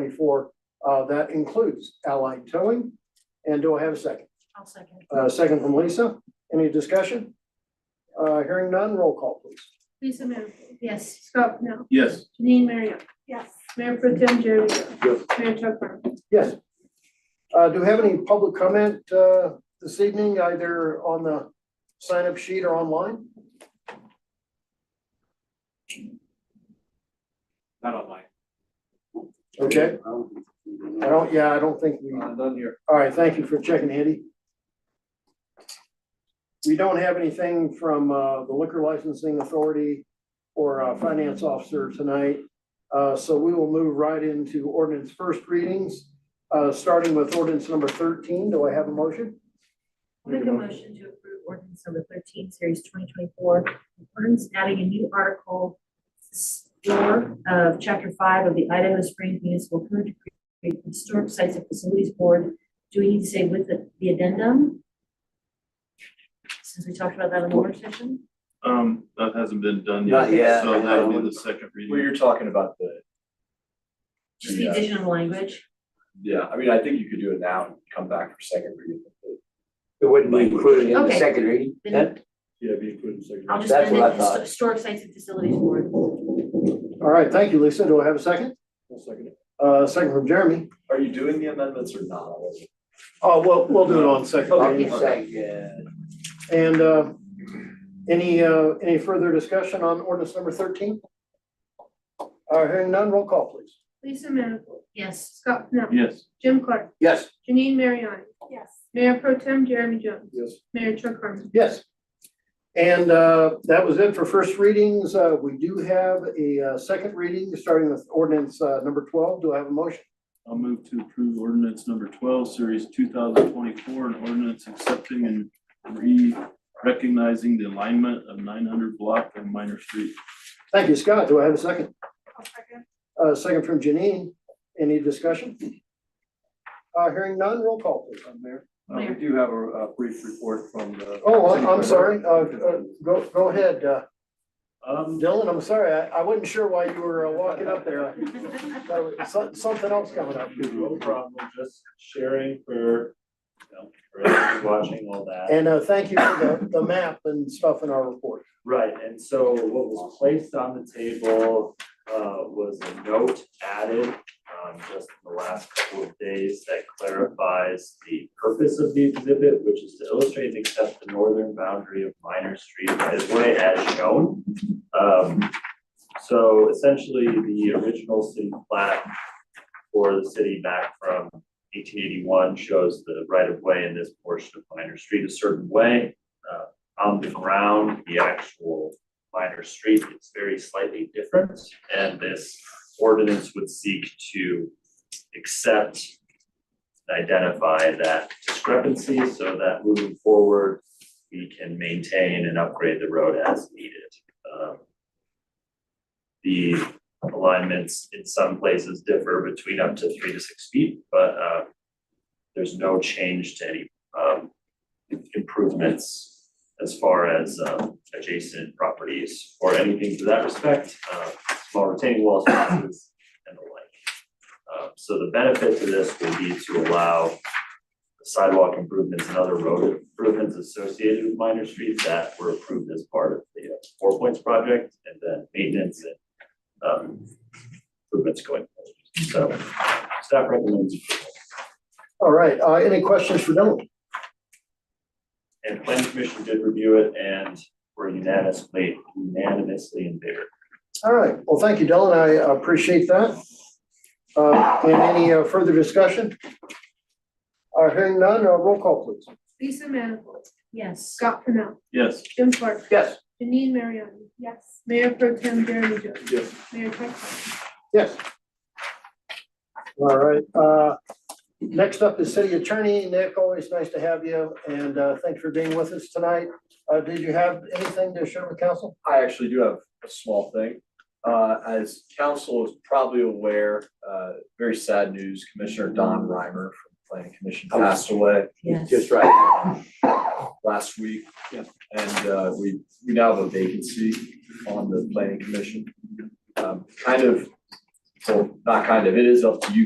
twenty-four, uh, that includes Allied Towing. And do I have a second? I'll second. Uh, second from Lisa. Any discussion? Uh, hearing none, roll call please. Lisa Manifold. Yes. Scott Pennell. Yes. Janine Mariotti. Yes. Mayor Pro Tem Jerry Yo. Mayor Chuck Harmon. Yes. Uh, do we have any public comment, uh, this evening, either on the sign-up sheet or online? Not online. Okay, I don't, yeah, I don't think we, all Uh, None here. right, thank you for checking, Andy. We don't have anything from, uh, the liquor licensing authority or, uh, finance officer tonight. Uh, so we will move right into ordinance first readings, uh, starting with ordinance number thirteen. Do I have a motion? Make a motion to approve ordinance number thirteen, series twenty twenty-four, ordinance adding a new article s- four of chapter five of the Idaho Springs Municipal Code to create the historic sites and facilities board. Do we need to say with the, the addendum? Since we talked about that in the work session? Um, that hasn't been done yet. Not yet. So that'll be the second Well, reading. you're talking about the, Just the Yeah. additional language. yeah, I mean, I think you could do it now and come back for second reading. It wouldn't be included in the Okay. second reading, Then that, Yeah, be put in second. I'll just That's amend it, what I histo- thought. historic sites and facilities board. All right, thank you, Lisa. Do I have a second? second. Uh, second from Jeremy. Are you doing the amendments or not? Oh, well, we'll do it on second Okay. reading. it's like, uh, And uh, any, uh, any further discussion on ordinance number thirteen? Uh, Hearing none, roll call, please. Lisa Manifold. Yes. Scott Pennell. Yes, Jim Clark. yes, Janine Mariotti. Yes. Mayor Pro Tem Jeremy Jones. Yes. Mayor Chuck Harmon. Yes. And uh, that was it for first readings. Uh, We do have a uh, second reading, starting with ordinance uh, number twelve. Do I have a motion? I'll move to approve ordinance number twelve, series two thousand twenty-four, an ordinance accepting and re-recognizing the alignment of nine hundred block of Minor Street. Thank you, Scott. Do I have a second? I'll second. Uh, Second from Janine. Any discussion? Uh, Hearing none, roll call, please. Mayor, Uh, we do have a brief report from the. Oh, I'm- I'm sorry. Uh, uh, Go, go ahead. uh, Um, Dylan, I'm sorry. I I wasn't sure why you were uh, walking up there. That was some- Something else coming up. No problem, just sharing for, you know, for everyone watching all that. And uh, thank you for the, the map and stuff in our report. Right, and so what was placed on the table uh was a note added um just in the last couple of days that clarifies the purpose of the exhibit, which is to illustrate and accept the northern boundary of Minor Street as way as shown. Um, so essentially, the original city plat for the city back from eighteen eighty-one shows the right of way in this portion of Minor Street a certain way. Uh, on the ground, the actual minor street is very slightly different. And this ordinance would seek to accept, and identify that discrepancy so that moving forward, we can maintain and upgrade the road as needed. Um, The alignments in some places differ between up to three to six feet, but uh, there's no change to any um, improvements as far as um, adjacent properties or anything to that respect, uh, small retaining walls, fences, and the like. Uh, So the benefit to this will be to allow sidewalk improvements and other road improvements associated with minor streets that were approved as part of the uh, Four Points project and then maintenance and um, improvements going forward. So staff recommends approval. All right, uh, any questions for Dylan? And planning commission did review it and were unanimously, unanimously in favor. All right, well, thank you, Dylan. I appreciate that. Uh, and any uh, further discussion? Uh, hearing none, uh, roll call, please. Lisa Manifold. Yes. Scott Pennell. yes, Jim Clark. Yes. Janine Mariotti. Yes. Mayor Pro Tem Jeremy Jones. Yes. Mayor Chuck Harmon. Yes. All right, uh, next up is city attorney. Nick, always nice to have you and, uh, thanks for being with us tonight. Uh, did you have anything to share with council? I actually do have a small thing. Uh, as council is probably aware, uh, very sad news, Commissioner Don Reimer from the Planning Commission passed away. Yes. just right, last week. And uh, we, we now have a vacancy on the planning commission. Um, Kind of well, not kind of, it is up to you